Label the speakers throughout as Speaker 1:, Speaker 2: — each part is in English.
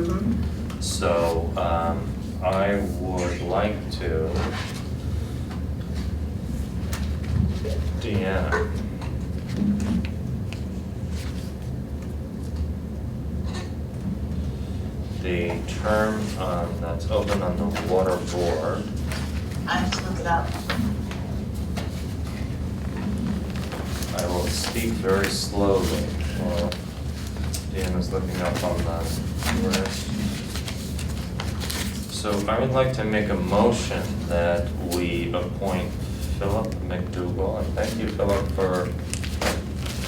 Speaker 1: Mm-hmm.
Speaker 2: So um, I would like to, Deanna. The term um, that's open on the water board,
Speaker 1: I have to look it up.
Speaker 2: I will speak very slowly while Deanna's looking up on the list. So I would like to make a motion that we appoint Philip McDougal, and thank you, Philip, for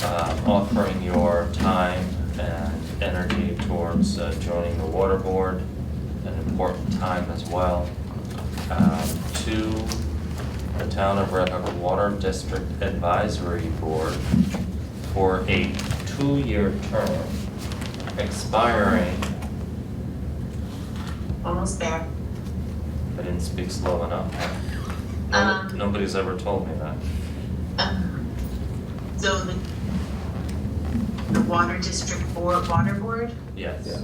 Speaker 2: uh, offering your time and energy towards uh, joining the water board, an important time as well, um, to the Town of Red Hook Water District Advisory Board for a two-year term expiring,
Speaker 1: Almost there.
Speaker 2: I didn't speak slow enough. No-
Speaker 1: Um.
Speaker 2: Nobody's ever told me that.
Speaker 1: Um, So the, the water district board, water board,
Speaker 2: Yes.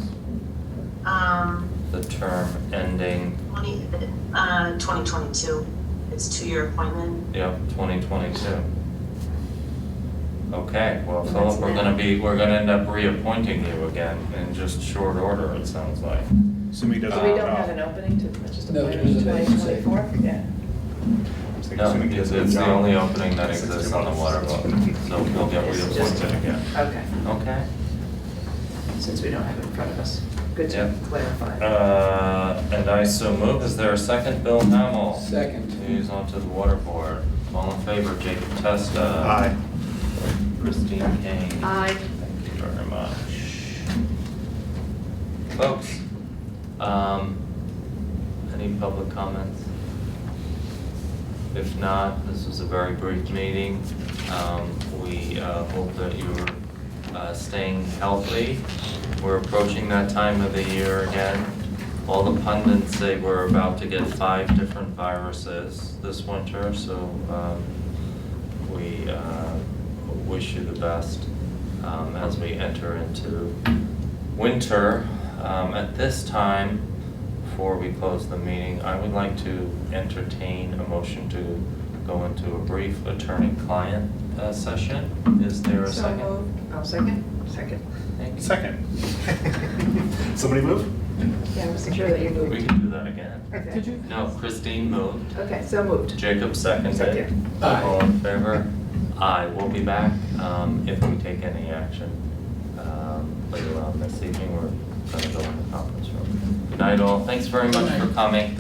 Speaker 1: um,
Speaker 2: The term ending,
Speaker 1: twenty, uh, twenty twenty-two. It's two-year appointment.
Speaker 2: yep, twenty twenty-two. Okay, well,
Speaker 1: That's
Speaker 2: Philip, we're gonna
Speaker 1: now.
Speaker 2: be, we're gonna end up reappointing you again in just short order, it sounds like.
Speaker 3: Assuming he
Speaker 4: So
Speaker 3: doesn't
Speaker 4: we
Speaker 2: Uh,
Speaker 3: opt
Speaker 4: don't have
Speaker 3: out.
Speaker 4: an opening to, it's just a
Speaker 5: No,
Speaker 4: point
Speaker 5: there's
Speaker 4: in
Speaker 5: a vacancy.
Speaker 4: 2024? Yeah.
Speaker 3: I'm just
Speaker 2: No,
Speaker 3: assuming he
Speaker 2: it's,
Speaker 3: doesn't
Speaker 2: it's the
Speaker 3: opt out.
Speaker 2: only opening that
Speaker 3: It's like
Speaker 2: exists
Speaker 3: two
Speaker 2: on the water
Speaker 3: months.
Speaker 2: board, so we'll get
Speaker 4: It's just-
Speaker 2: reappointed again.
Speaker 4: Okay,
Speaker 2: Okay.
Speaker 4: since we don't have it in front of us. Good to
Speaker 2: Yep.
Speaker 4: clarify.
Speaker 2: Uh, and I so move, is there a second, Bill Hamel?
Speaker 5: Second.
Speaker 2: Who's onto the water board? All in favor, Jacob Testa.
Speaker 3: Aye.
Speaker 2: Christine Kane.
Speaker 4: Aye.
Speaker 2: Thank you very much. Folks, um, any public comments? If not, this was a very brief meeting. Um, we, uh, hope that you're, uh, staying healthy. We're approaching that time of the year again. All the pundits say we're about to get five different viruses this winter, so, um, we, uh, wish you the best, um, as we enter into winter. Um, at this time, before we close the meeting, I would like to entertain a motion to go into a brief attorney-client uh, session. Is there a second?
Speaker 4: So moved. I'll second, second.
Speaker 2: Thank you.
Speaker 3: Second. Somebody move?
Speaker 4: Yeah, I wasn't sure that you
Speaker 2: We
Speaker 4: moved.
Speaker 2: can do that again.
Speaker 4: Okay.
Speaker 2: No, Christine moved,
Speaker 4: Okay, so moved.
Speaker 2: Jacob seconded.
Speaker 4: Second.
Speaker 5: Aye.
Speaker 2: All in favor? Aye, we'll be back um, if we take any action um, later on this evening. We're going to go in the conference room. Good night all, thanks very much for coming.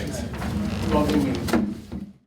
Speaker 5: Lovely meeting.